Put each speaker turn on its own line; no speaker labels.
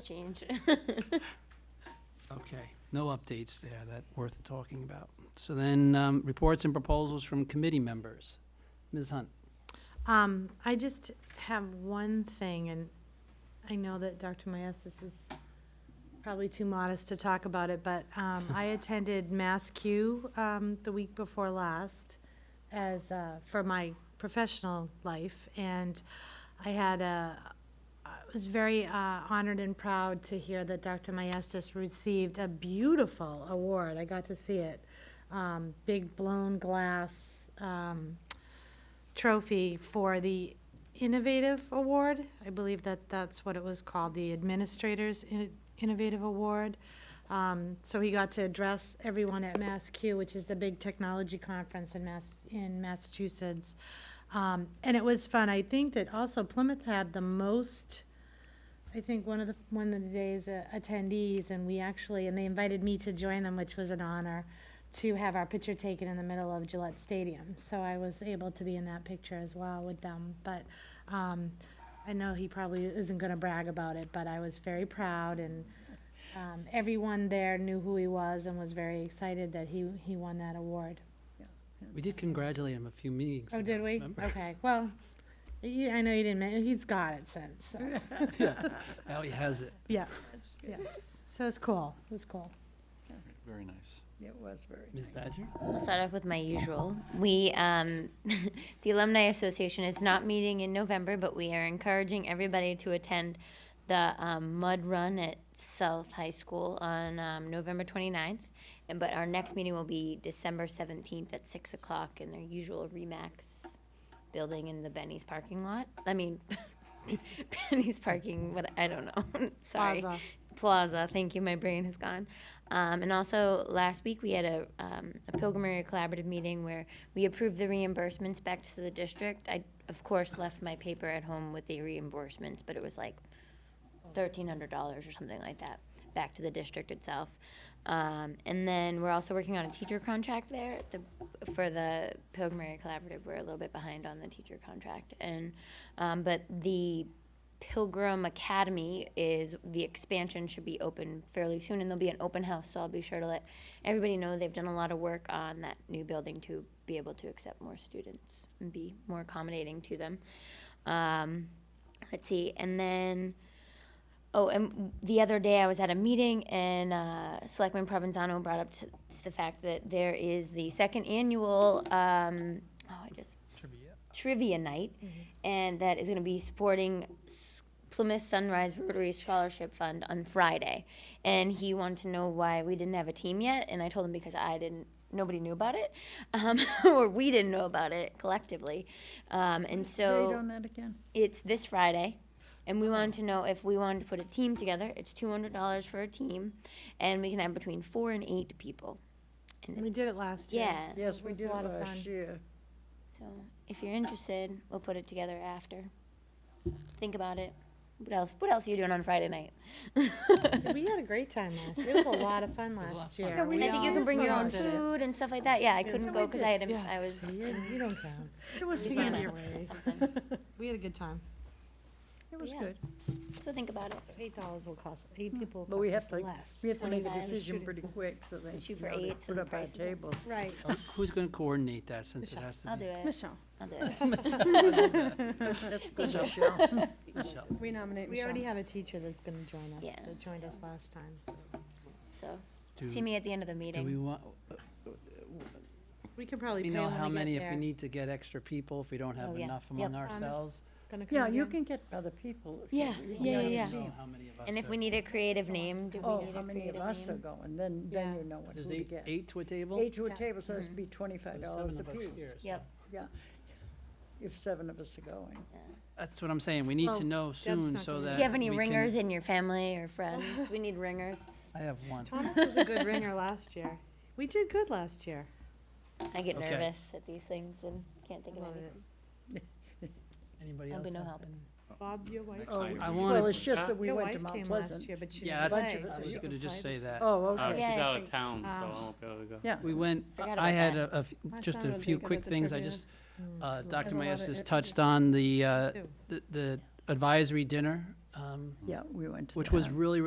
change.
Okay, no updates there that worth talking about. So then, um, reports and proposals from committee members. Ms. Hunt?
Um, I just have one thing, and I know that Dr. Maestas is probably too modest to talk about it, but, um, I attended Mass Q, um, the week before last as, uh, for my professional life, and I had a, I was very, uh, honored and proud to hear that Dr. Maestas received a beautiful award. I got to see it. Um, big blown glass, um, trophy for the Innovative Award. I believe that that's what it was called, the Administrators In- Innovative Award. Um, So he got to address everyone at MassQ, which is the big technology conference in Mass, in Massachusetts. Um, And it was fun. I think that also Plymouth had the most, I think, one of the, one of the days uh, attendees, and we actually, and they invited me to join them, which was an honor to have our picture taken in the middle of Gillette Stadium. So I was able to be in that picture as well with them. But um, I know he probably isn't going to brag about it, but I was very proud and um, everyone there knew who he was and was very excited that he, he won that award.
We did congratulate him a few meetings ago.
Oh, did we?
remember?
Okay, well, yeah, I know you didn't, men- he's got it since, so.
Now he has it.
yes, yes. So it's cool, it was cool.
Very nice.
It was very
Ms. Badger?
I'll start off with my usual. We, um, the Alumni Association is not meeting in November, but we are encouraging everybody to attend the um, Mud Run at South High School on um, November 29th. And, but our next meeting will be December 17th at 6 o'clock in their usual Remax building in the Benny's parking lot. I mean, Benny's parking, what, I don't know, sorry.
Plaza.
Plaza, thank you, my brain has gone. Um, and also, last week, we had a, um, a Pilgrim Area Collaborative meeting where we approved the reimbursements back to the district. I, of course, left my paper at home with the reimbursements, but it was like thirteen hundred dollars or something like that back to the district itself. Um, and then we're also working on a teacher contract there at the, for the Pilgrim Area Collaborative. We're a little bit behind on the teacher contract, and um, but the Pilgrim Academy is the expansion should be open fairly soon, and there'll be an open house. So I'll be sure to let everybody know. They've done a lot of work on that new building to be able to accept more students and be more accommodating to them. Um, let's see, and then. Oh, and the other day I was at a meeting and uh, Selectman Provenzano brought up to, to the fact that there is the second annual, um, oh, I just trivia night,
Mm-hmm.
and that is going to be supporting S- Plymouth Sunrise Rotary Scholarship Fund on Friday. And he wanted to know why we didn't have a team yet, and I told him because I didn't, nobody knew about it, um, or we didn't know about it collectively. Um, and so
Date on that again?
it's this Friday, and we wanted to know if we wanted to put a team together. It's two hundred dollars for a team, and we can have between four and eight people. And
We
it's-
did it last year.
Yeah.
Yes,
It
we
was a
did
lot of
last
fun.
year.
So if you're interested, we'll put it together after. Think about it. What else? What else are you doing on Friday night?
We had a great time last year. It was a lot of fun last year.
Yeah, we
and I think you
all
can bring your own
did it.
food and stuff like that. Yeah, I couldn't
so
go
we
because I had
did.
a- I was
You don't count.
It was
Yeah.
fun.
Yeah.
Anyway,
something.
We had a good time.
It was
Yeah.
good.
So think about it.
Eight dollars will cost, eight people
Mm. But we
will cost
have to,
us
like,
less.
we have to make a
25
decision
shooting
pretty quick, so they.
Shoot
you
for
know, they
eights
Put
and
up our
prices.
table.
Right.
Oh, Who's gonna coordinate that since it has to
I'll do
be?
it.
Michelle,
I'll do it.
That's good, Michelle.
Michelle.
we nominate
We
Michelle.
already have a teacher that's gonna join us,
Yeah,
that joined us
so-
last time, so.
So
Do-
see me at the end of the
Do we
meeting.
want,
We could probably
we
pay
know
when
how many,
we get
if we
there.
need to get extra people, if we don't
Oh,
have
yeah.
enough
Yep.
among
Thomas,
ourselves?
Gonna come
Yeah, you
again?
can get other people. if you-
Yeah,
you
yeah,
know,
yeah,
the
We don't know
team.
how many of us
And if
are-
we need a creative name, do we
Oh,
need
how
a
many of
creative
us are
name?
going, then, then
Yeah.
you know what
There's
to
eight,
get.
eight to a table?
Eight to a
Yeah.
table, so it's be twenty-five
So
dollars
seven of us
apiece,
here, so-
Yep.
if seven of us are going.
That's what I'm saying, we need
Well,
to know soon
not
so
gonna do
that.
Do you have any
we can-
ringers in your family or friends? We need ringers.
I have one.
Thomas was a good ringer last year. We did good last year.
I get
Okay.
nervous at these things and can't think of
Love
anything.
Anybody
I'll
else?
be no
have
help.
any?
Bob, your wife,
Next
Oh,
item.
I
Well,
wanted,
it's just
Uh,
that we
your
went to
wife came
Mount
last
Pleasant.
year, but she
yeah,
didn't
bunch
that's,
play.
of us
I
so
are
was
you
gonna
can
just
play
say
this.
that.
Oh,
Uh,
okay.
she's
Yeah, I
out of
think-
town, so I
Ah.
um,
won't be able to go.
Yeah,
We went,
Forgot
I
about
had
that.
a, a f-
My
just
son
a
would be
few
good at
quick
the
things, I
trivia.
just, uh, Dr.
There's a lot of
Mayestas
it-
touched on the, uh,
too.
the, the advisory dinner,
um,
Yeah, we went to
which was
that.
really,